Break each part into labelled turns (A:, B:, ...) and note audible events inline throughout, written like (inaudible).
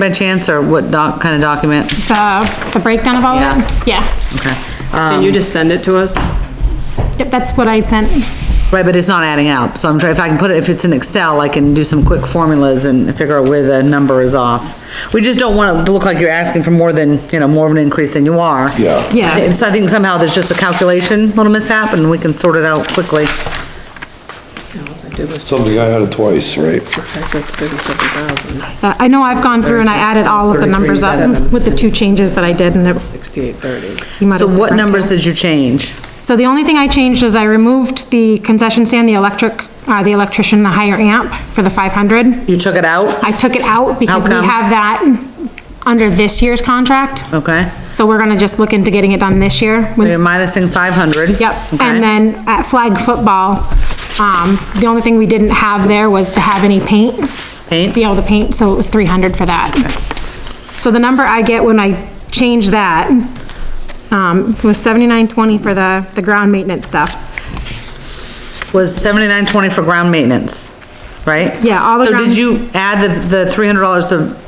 A: By chance, or what doc, kind of document?
B: The, the breakdown of all of that? Yeah.
A: Okay.
C: Can you just send it to us?
B: Yep, that's what I sent.
A: Right, but it's not adding up, so I'm trying, if I can put it, if it's in Excel, I can do some quick formulas and figure out where the number is off. We just don't want it to look like you're asking for more than, you know, more of an increase than you are.
D: Yeah.
B: Yeah.
A: It's, I think somehow there's just a calculation, little mishap, and we can sort it out quickly.
D: Something I had it twice, right?
B: Uh, I know I've gone through and I added all of the numbers up with the two changes that I did and it.
C: Sixty-eight thirty.
B: you might
A: So
B: have
A: what
B: different
A: numbers
B: too.
A: did you change?
B: So the only thing I changed is I removed the concession stand, the electric, uh, the electrician, the higher amp for the five hundred.
A: You took it out?
B: I took it out because we
A: come?
B: have that under this year's contract.
A: Okay,
B: So we're gonna just look into getting it done this year.
A: so you're minusing five hundred?
B: Yep, and then at flag football, um, the only thing we didn't have there was to have any paint.
A: Paint?
B: Be able to paint, so it was three hundred for that. So the number I get when I change that, um, was seventy-nine twenty for the, the ground maintenance stuff.
A: Was seventy-nine twenty for ground maintenance, right?
B: Yeah, all the
A: So
B: ground-
A: did you add the, the three hundred dollars to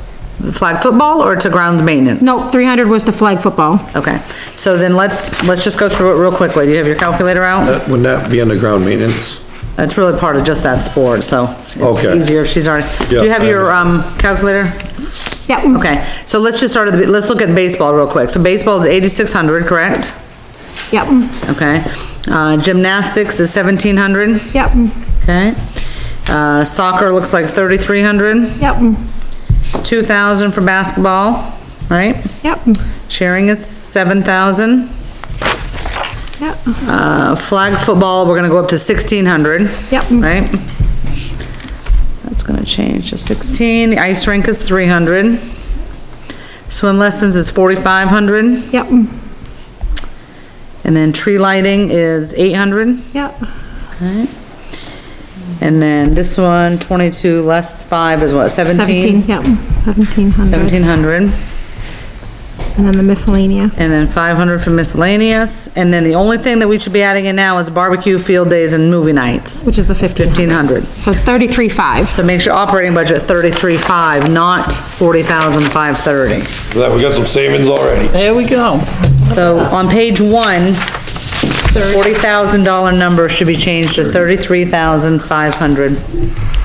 A: flag football or to ground maintenance?
B: Nope, three hundred was to flag football.
A: Okay, so then let's, let's just go through it real quickly. Do you have your calculator out?
E: Wouldn't that be underground maintenance?
A: That's really part of just that sport, so it's
E: Okay.
A: easier if she's already, do you
E: Yeah,
A: have
E: I
A: your, um, calculator?
B: Yep.
A: Okay, so let's just start at the, let's look at baseball real quick. So baseball is eighty-six hundred, correct?
B: Yep,
A: Okay, uh, gymnastics is seventeen hundred,
B: yep,
A: okay? Uh, soccer looks like thirty-three hundred,
B: yep,
A: two thousand for basketball, right?
B: yep,
A: Sharing is seven thousand.
B: yep,
A: Uh, flag football, we're gonna go up to sixteen hundred.
B: Yep.
A: Right? That's gonna change to sixteen, the ice rink is three hundred. Swim lessons is forty-five hundred,
B: yep,
A: and then tree lighting is eight hundred,
B: yep,
A: and then this one, twenty-two less five is what,
B: seventeen,
A: seventeen?
B: yep, seventeen hundred,
A: Seventeen hundred,
B: and then the miscellaneous.
A: and then five hundred for miscellaneous, and then the only thing that we should be adding in now is barbecue, field days, and movie nights,
B: Which is the fifteen.
A: fifteen hundred.
B: So it's thirty-three five.
A: So make sure operating budget thirty-three five, not forty thousand five thirty.
D: That, we got some savings already.
F: There we go.
A: So on page one, the forty thousand dollar number should be changed to thirty-three thousand five hundred.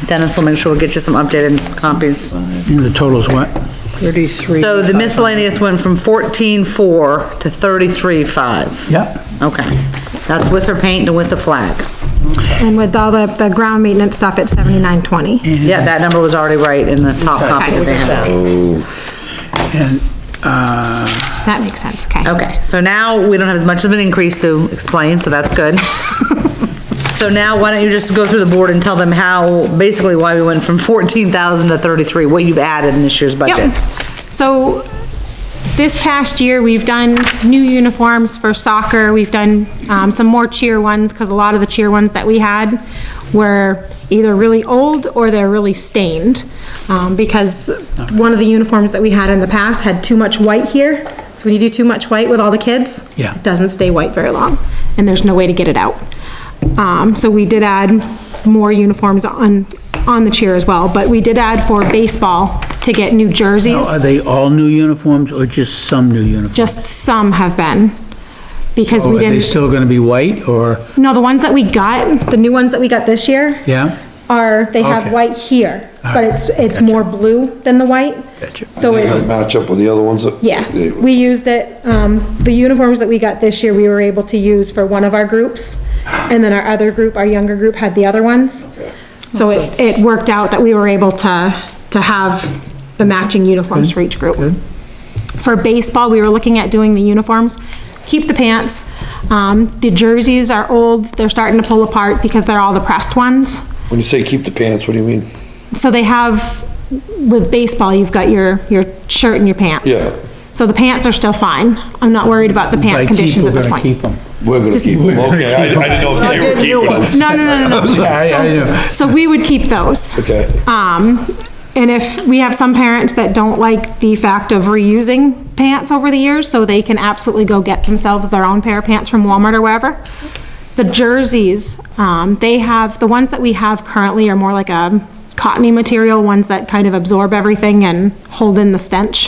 A: Dennis will make sure we'll get you some updated copies.
F: And the total's what?
C: Thirty-three.
A: So the miscellaneous went from fourteen-four to thirty-three five.
F: Yep.
A: Okay, that's with her paint and with the flag.
B: And with all the, the ground maintenance stuff, it's seventy-nine twenty.
A: Yeah, that number was already right in the top copy that they had.
F: And, uh,
B: That makes sense, okay.
A: Okay, so now we don't have as much of an increase to explain, so that's
B: (laughs)
A: good. So now, why don't you just go through the board and tell them how, basically why we went from fourteen thousand to thirty-three, what you've added in this year's budget?
B: Yep. So this past year, we've done new uniforms for soccer. We've done um, some more cheer ones because a lot of the cheer ones that we had were either really old or they're really stained. Um, Because one of the uniforms that we had in the past had too much white here. So when you do too much white with all the kids,
F: Yeah.
B: it doesn't stay white very long and there's no way to get it out. Um, So we did add more uniforms on, on the cheer as well, but we did add for baseball to get new
F: now,
B: jerseys.
F: are they all new uniforms or just some new uniforms?
B: Just some have been, because
F: Or
B: we
F: Oh, Are they
B: didn't,
F: still gonna be white or,
B: no, the ones that we got, the new ones that we got this year.
F: yeah?
B: Are, they have
F: Okay.
B: white here, but
F: right,
B: it's, it's more blue than the white.
F: Gotcha.
B: So
D: They gotta
B: it,
D: match up with the other ones that.
B: yeah,
D: they-
B: we used it, um, the uniforms that we got this year, we were able to use for one of our groups. And then our other group, our younger group, had the other ones. So it, it worked out that we were able to, to have the matching uniforms for each group. For baseball, we were looking at doing the uniforms, keep the pants. Um, the jerseys are old, they're starting to pull apart because they're all the pressed ones.
D: When you say keep the pants, what do you mean?
B: So they have, with baseball, you've got your, your shirt and your pants.
D: Yeah.
B: So the pants are still fine. I'm not worried about the
F: By
B: pant
F: keep,
B: conditions
F: we're
B: at this
F: gonna
B: point.
F: keep 'em.
D: We're gonna
B: Just-
D: keep them. Okay, I, I didn't know if they were keeping them.
B: No, no, no, no, no.
F: Yeah, I- I know.
B: So we would keep those.
D: Okay.
B: Um, and if, we have some parents that don't like the fact of reusing pants over the years, so they can absolutely go get themselves their own pair of pants from Walmart or wherever. The jerseys, um, they have, the ones that we have currently are more like a cottony material, ones that kind of absorb everything and hold in the stench.